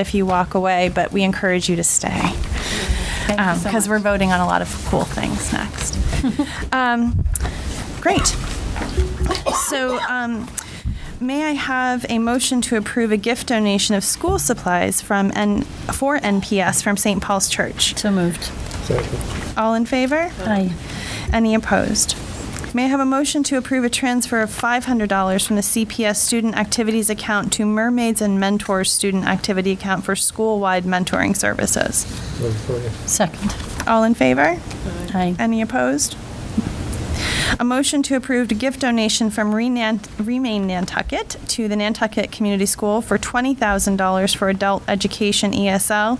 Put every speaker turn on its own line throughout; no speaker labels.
if you walk away, but we encourage you to stay.
you so
Because
much.
we're voting on a lot of cool things next. Um, Great. So um, may I have a motion to approve a gift donation of school supplies from, N for NPS from St. Paul's Church?
So moved.
All in favor?
Aye.
Any opposed? May I have a motion to approve a transfer of $500 from the CPS Student Activities Account to Mermaids and Mentors Student Activity Account for school-wide mentoring services?
Second.
All in favor?
Aye.
Any opposed? A motion to approve a gift donation from Renan- Remain Nantucket to the Nantucket Community School for $20,000 for adult education ESL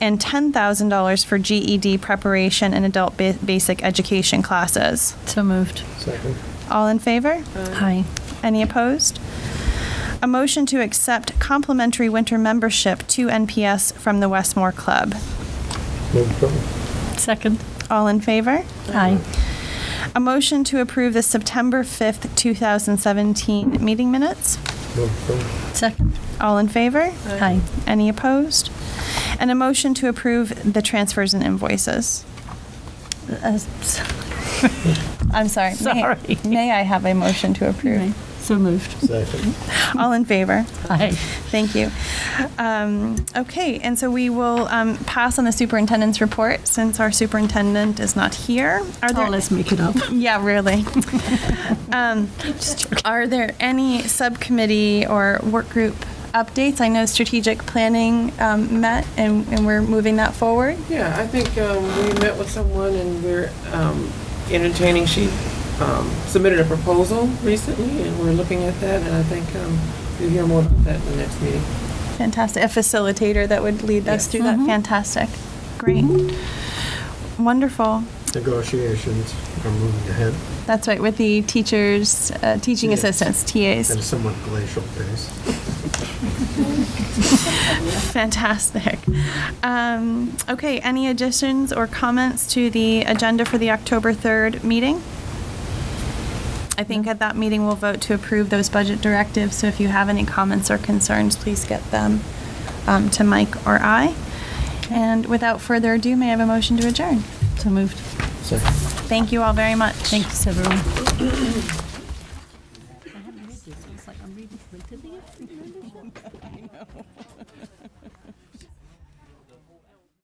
and $10,000 for GED preparation and adult ba- basic education classes.
So moved.
Second.
All in favor?
Aye.
Any opposed? A motion to accept complimentary winter membership to NPS from the Westmore Club.
Move approval.
Second.
All in favor?
Aye.
A motion to approve the September 5th, 2017 meeting minutes.
Move approval.
Second.
All in favor?
Aye.
Any opposed? And a motion to approve the transfers and invoices.
Uh, s-
I'm sorry. may-
Sorry.
May I have a motion to approve?
So moved.
Second.
All in favor?
Aye.
Thank you. Um, Okay, and so we will um, pass on the superintendent's report since our superintendent is not here. Are
Oh,
there?
let's make it up.
Yeah, really. Um, Are there any subcommittee or work group updates? I know strategic planning um, met and and we're moving that forward.
Yeah, I think um, we met with someone and we're um, entertaining, she um, submitted a proposal recently and we're looking at that and I think um, you'll hear more about that in the next meeting.
Fantastic. A facilitator that would lead us
Yes.
through that. Fantastic. Great. Wonderful.
Negotiations are moving ahead
That's right, with the teachers, uh, teaching
Yes.
assistants,
at a
TAs.
somewhat glacial pace.
Fantastic. Um, Okay, any additions or comments to the agenda for the October 3rd meeting? I think at that meeting, we'll vote to approve those budget directives, so if you have any comments or concerns, please get them um, to Mike or I. And without further ado, may I have a motion to adjourn?
So moved.
Second.
Thank you all very much.
Thanks, everyone.